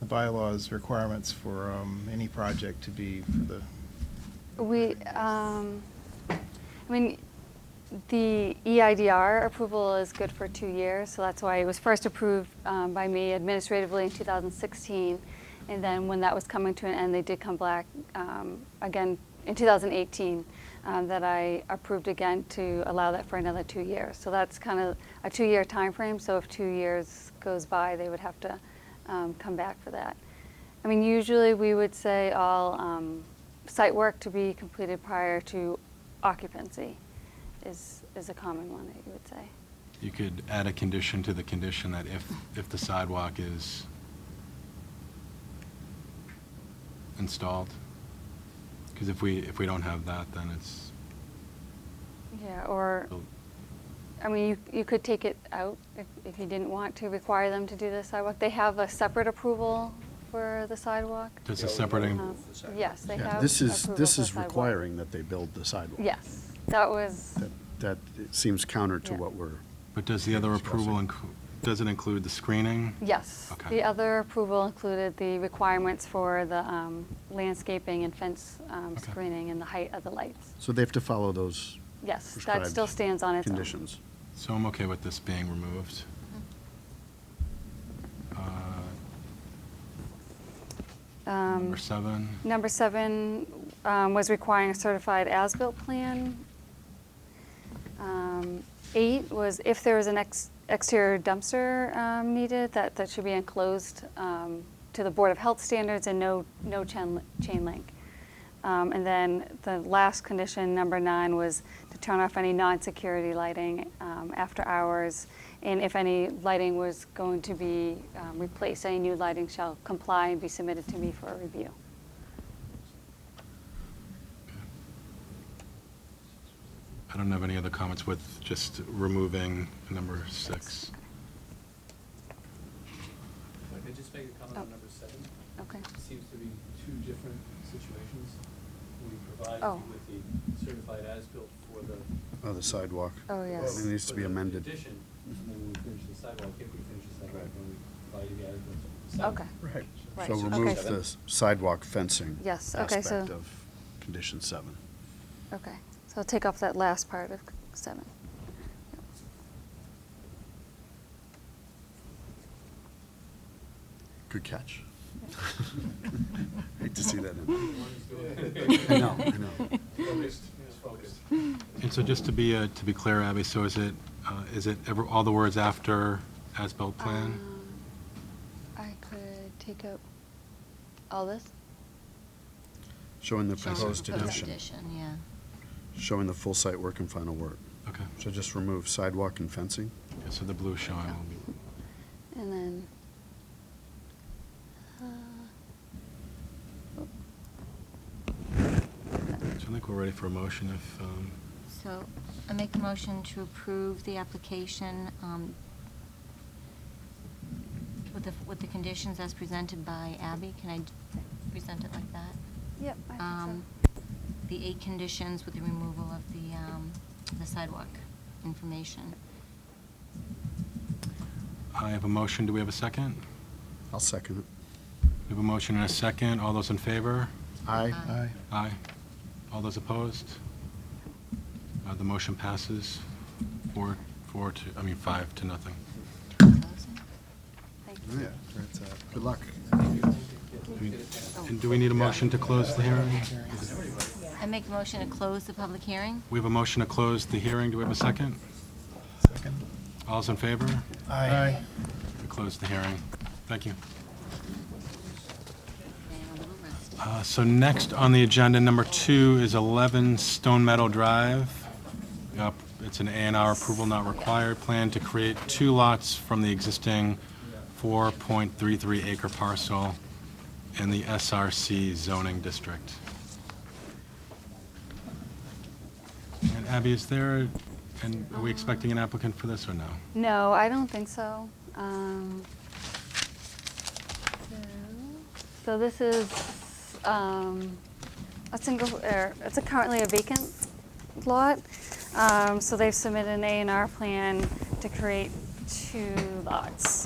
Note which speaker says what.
Speaker 1: the bylaws requirements for um, any project to be for the,
Speaker 2: We, um, I mean, the E EIDR approval is good for two years, so that's why it was first approved um, by me administratively in 2016. And then when that was coming to an end, they did come back um, again in 2018, um, that I approved again to allow that for another two years. So that's kind of a two-year timeframe, so if two years goes by, they would have to um, come back for that. I mean, usually we would say all um, site work to be completed prior to occupancy is, is a common one that you would say.
Speaker 3: You could add a condition to the condition that if, if the sidewalk is installed, because if we, if we don't have that, then it's,
Speaker 2: Yeah, or, I mean, you, you could take it out if, if you didn't want to require them to do the sidewalk. They have a separate approval for the sidewalk.
Speaker 3: does a separating,
Speaker 2: Um, Yes, they
Speaker 4: Yeah,
Speaker 2: have.
Speaker 4: This is,
Speaker 2: approval
Speaker 4: this
Speaker 2: for
Speaker 4: is
Speaker 2: sidewalk.
Speaker 4: requiring that they build the sidewalk.
Speaker 2: Yes, that was,
Speaker 4: That, that it seems counter to
Speaker 2: Yeah.
Speaker 4: what we're,
Speaker 3: but does the other approval, inclu- does it include the screening?
Speaker 2: yes.
Speaker 3: Okay.
Speaker 2: The other approval included the requirements for the um, landscaping and fence um,
Speaker 3: Okay.
Speaker 2: screening and the height of the lights.
Speaker 4: so they have to follow those
Speaker 2: Yes, that
Speaker 4: prescribed
Speaker 2: still stands on its own.
Speaker 4: conditions.
Speaker 3: So I'm okay with this being removed. Uh,
Speaker 2: Um,
Speaker 3: Number seven,
Speaker 2: Number seven um, was requiring a certified as-built plan. Um, Eight was if there was an ex- exterior dumpster um, needed, that, that should be enclosed um, to the Board of Health standards and no, no chain chain link. Um, And then the last condition, number nine, was to turn off any non-security lighting um, after hours. And if any lighting was going to be um, replaced, any new lighting shall comply and be submitted to me for a review.
Speaker 3: I don't have any other comments with just removing number six.
Speaker 5: If I could just make a comment
Speaker 2: Oh.
Speaker 5: on number seven,
Speaker 2: Okay.
Speaker 5: seems to be two different situations. We provide
Speaker 2: Oh.
Speaker 5: you with the certified as-built for the.
Speaker 4: Oh, the sidewalk.
Speaker 2: Oh, yes.
Speaker 4: It needs to
Speaker 5: for
Speaker 4: be
Speaker 5: the
Speaker 4: amended.
Speaker 5: Addition, and then when we finish the sidewalk, if we finish the sidewalk,
Speaker 4: Right.
Speaker 5: then we provide you the as-built. for the
Speaker 2: Okay.
Speaker 5: sidewalk.
Speaker 4: Right.
Speaker 2: Right,
Speaker 4: So
Speaker 2: okay.
Speaker 4: remove the sidewalk fencing.
Speaker 2: Yes, okay, so-
Speaker 4: Aspect of condition seven.
Speaker 2: Okay, so I'll take off that last part of seven.
Speaker 4: Good catch. Hate to see that in.
Speaker 5: One is
Speaker 4: there. I
Speaker 5: good.
Speaker 4: know, I know.
Speaker 5: Focused, it's focused.
Speaker 3: And so just to be, uh, to be clear, Abby, so is it, uh, is it ever, all the words after as-built plan?
Speaker 2: Um, I could take out all this?
Speaker 4: Showing the
Speaker 3: Showing the
Speaker 4: proposed
Speaker 3: proposed
Speaker 4: addition,
Speaker 6: yeah.
Speaker 4: showing the full site work and final work.
Speaker 3: Okay,
Speaker 4: So just remove sidewalk and fencing?
Speaker 3: Yeah, so the blue showing will be,
Speaker 2: And then, uh,
Speaker 3: so I think we're ready for a motion if, um,
Speaker 6: So I make a motion to approve the application um, with the, with the conditions as presented by Abby. Can I d- present it like that?
Speaker 2: yep, I think
Speaker 6: Um, The eight conditions with the removal of the um, the sidewalk information.
Speaker 3: I have a motion, do we have a second?
Speaker 4: I'll second it.
Speaker 3: We have a motion and a second, all those in favor?
Speaker 4: Aye.
Speaker 6: Aye.
Speaker 1: aye,
Speaker 3: Aye. All those opposed? Uh, The motion passes four, four to, I mean, five to nothing.
Speaker 6: Closing?
Speaker 2: so. Thank
Speaker 4: Yeah,
Speaker 2: you.
Speaker 4: that's, uh, good luck.
Speaker 3: And do we need a motion to close the hearing?
Speaker 6: I make a motion to close the public hearing.
Speaker 3: We have a motion to close the hearing, do we have a second?
Speaker 1: second?
Speaker 3: All's in favor?
Speaker 1: Aye.
Speaker 3: We close the hearing. Thank you.
Speaker 6: And a little rest.
Speaker 3: Uh, So next on the agenda, number two, is 11 Stone Meadow Drive. Uh, It's an A and R approval not required plan to create two lots from the existing 4.33 acre parcel in the SRC zoning district. And Abby, is there, and are we expecting an applicant for this or no?
Speaker 2: No, I don't think so. Um, so- So this is, um, a single, er, it's a currently a vacant lot. Um, So they've submitted an A and R plan to create two lots.